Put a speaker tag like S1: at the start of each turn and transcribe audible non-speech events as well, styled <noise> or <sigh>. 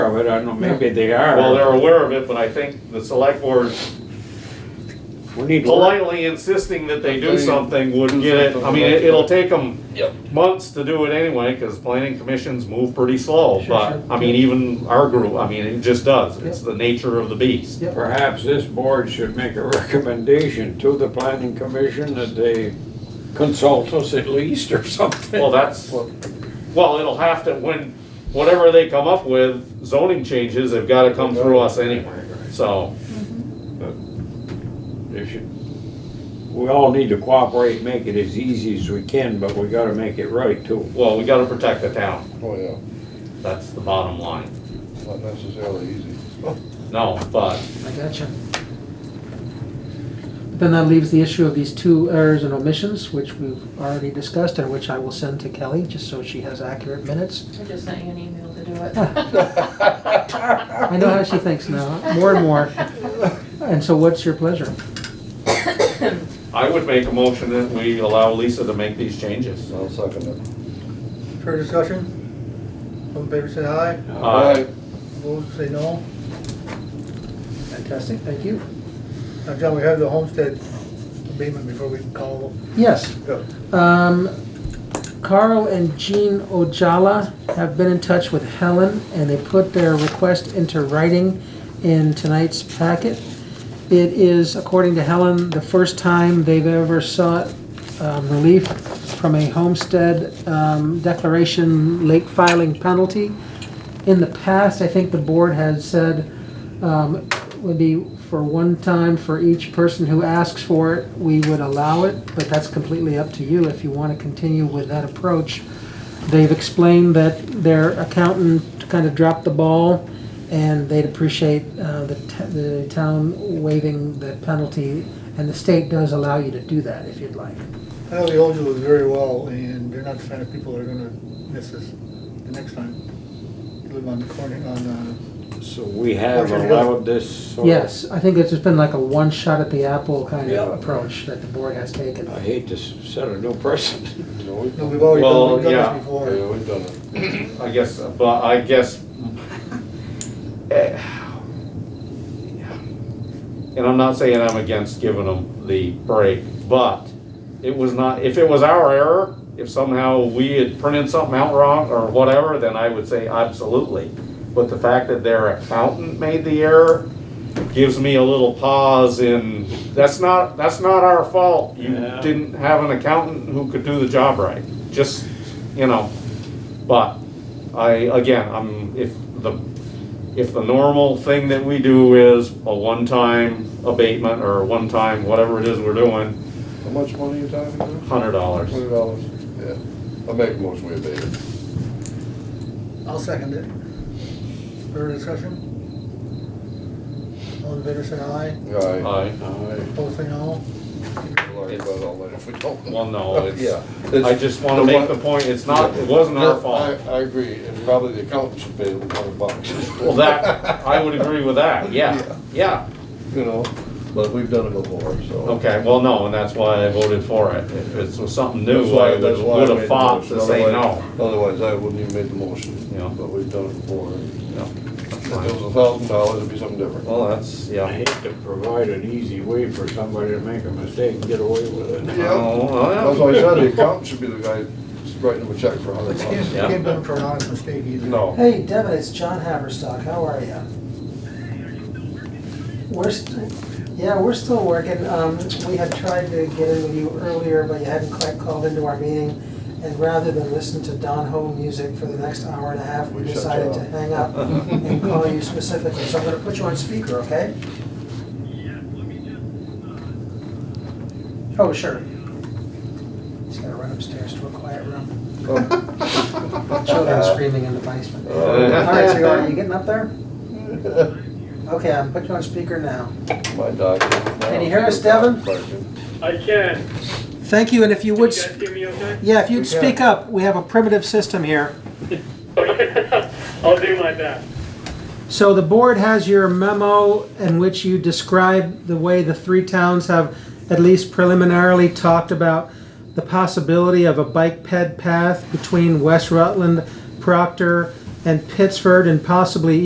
S1: it, I don't know, maybe they are.
S2: Well, they're aware of it, but I think the select board
S1: We need to work-
S2: politely insisting that they do something would get it, I mean, it- it'll take them
S3: Yep.
S2: months to do it anyway, cause planning commissions move pretty slow, but, I mean, even our group, I mean, it just does, it's the nature of the beast.
S4: Yep.
S1: Perhaps this board should make a <laughs> recommendation to the planning commission that they consult us at least or <laughs> something.
S2: Well, that's, well, it'll have to, when, whatever they come up with, zoning changes, they've gotta come through us anyway, so.
S1: They should- We all need to cooperate, make it as easy as we can, but we gotta make it right too.
S2: Well, we gotta protect the town,
S4: Oh, yeah,
S2: that's the bottom line.
S4: not necessarily easy.
S2: No, but
S5: I gotcha. But Then that leaves the issue of these two errors and omissions, which we've already discussed, and which I will send to Kelly, just so she has accurate minutes.
S6: I just sent you an email to do it.
S5: I know how she thinks now, more and more. And so what's your pleasure?
S2: I would make a motion that we allow Lisa to make these changes.
S4: I'll second it.
S7: Fair discussion? All in favor say aye,
S2: Uh,
S7: opposed say no.
S5: Fantastic, thank you.
S7: Now, John, we have the homestead abatement before we call.
S5: Yes,
S7: Go.
S5: um, Carl and Jean Ojala have been in touch with Helen, and they put their request into writing in tonight's packet. It is, according to Helen, the first time they've ever sought um, relief from a homestead um, declaration late filing penalty. In the past, I think the board has said um, would be for one time for each person who asks for it, we would allow it, but that's completely up to you if you want to continue with that approach. They've explained that their accountant kind of dropped the ball, and they'd appreciate uh, the t- the town waiving the penalty, and the state does allow you to do that if you'd like.
S7: I know the old you very well, and they're not the kind of people that are gonna miss us the next time. They live on Corning, on, uh,
S1: So we have
S7: Orchard Hill.
S1: allowed this sort of-
S5: Yes, I think it's just been like a one shot at the apple kind
S1: Yeah. Uh,
S5: of approach that the board has taken.
S1: I hate to s- set a new <laughs> precedent.
S4: No, we've
S7: no,
S4: done
S7: we've already
S2: Well,
S7: done, we've done
S2: yeah.
S7: this before.
S4: it. Yeah, we've done it.
S2: I guess, but I guess. eh, And I'm not saying I'm against giving them the break, but it was not, if it was our error, if somehow we had printed something out wrong or whatever, then I would say absolutely. But the fact that their accountant made the error gives me a little pause in, that's not, that's not our fault. You
S1: Yeah.
S2: didn't have an accountant who could do the job right. Just, you know, but I, again, I'm, if the, if the normal thing that we do is a one-time abatement or a one-time whatever it is we're doing,
S4: How much money you talking about?
S2: hundred dollars.
S4: Twenty dollars? Yeah, I'll make a motion, we abate it.
S7: I'll second it. Further discussion? All in favor say aye,
S4: Aye.
S2: I,
S4: Aye.
S7: opposed say no.
S4: We'll argue about it all later if we don't.
S2: well, no,
S4: Oh, Yeah.
S2: it's, I just wanna make the point, it's not, it wasn't our
S4: No,
S2: fault.
S4: I, I agree, and probably the accountant should pay the hundred bucks.
S2: Well, that, I would agree with that, yeah, yeah.
S4: <laughs> You know, but we've done it before, so.
S2: Okay, well, no, and that's why I voted for it. If it was something new,
S4: That's why-
S2: I
S4: that's why I
S2: would
S4: made
S2: have
S4: the
S2: fought
S4: motion.
S2: to say no.
S4: Otherwise- Otherwise, I wouldn't even made the motion.
S2: Yeah.
S4: But we've done it before. If
S2: No,
S4: it
S2: that's
S4: was
S2: fine.
S4: a thousand dollars, it'd be something different.
S2: Well, that's, yeah.
S1: I hate to provide an easy way for somebody to make a mistake and get away with it.
S4: Yeah.
S2: Oh, well,
S4: That's why I said <laughs> the accountant should be the guy writing him a check for a hundred
S7: Excuse
S4: bucks.
S7: me, you can't blame them for an honest mistake either.
S4: No.
S5: Hey, Devin, it's John Haverstock. How are you? We're, st- yeah, we're still working. Um, we had tried to get in with you earlier, but you hadn't quite called into our meeting. And rather than listen to Don Ho music for the next hour and a half, we
S4: We shut
S5: decided
S4: you
S5: to
S4: up.
S5: hang
S4: <laughs>
S5: up and call you specifically. So I'm gonna put you on speaker, okay? Oh, sure. Just gotta run upstairs to a quiet room.
S4: Um,
S5: <laughs>
S4: Uh,
S5: Children screaming in the basement. All right, so are <laughs> you getting up there? Okay, I'm putting you on speaker now.
S4: <laughs> My doctor.
S5: Can you hear us, Devin?
S8: I can.
S5: Thank you, and if you
S8: Can you
S5: would,
S8: guys hear me okay?
S5: yeah, if you'd
S7: Yeah.
S5: speak up, we have a primitive system here.
S8: Okay. <laughs> I'll do my best.
S5: So the board has your memo in which you describe the way the three towns have at least preliminarily talked about the possibility of a bike ped path between West Rutland, Proctor, and Pittsford, and possibly